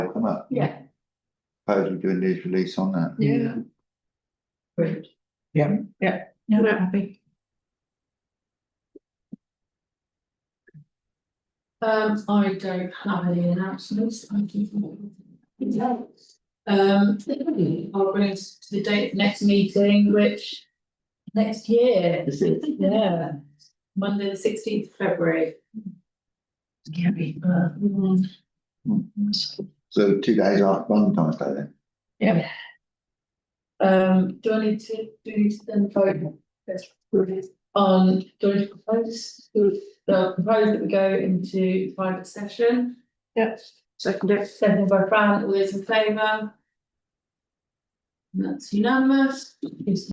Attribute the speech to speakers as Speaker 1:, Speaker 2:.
Speaker 1: come up.
Speaker 2: Yeah.
Speaker 1: Suppose we do a news release on that.
Speaker 2: Yeah. Great.
Speaker 3: Yeah.
Speaker 2: Yeah. No, I'm happy. Um, I don't have any announcements. Thank you. Um, I'll bring us to the date of next meeting, which next year,
Speaker 1: Is it?
Speaker 2: yeah, Monday, the sixteenth of February. Can't be.
Speaker 1: So two days after Valentine's Day then?
Speaker 2: Um, do I need to do then vote? On, do I need to propose, do, uh, propose that we go into private session? Yes. Second. Second by Fran, all those in favour? And That's unanimous, It's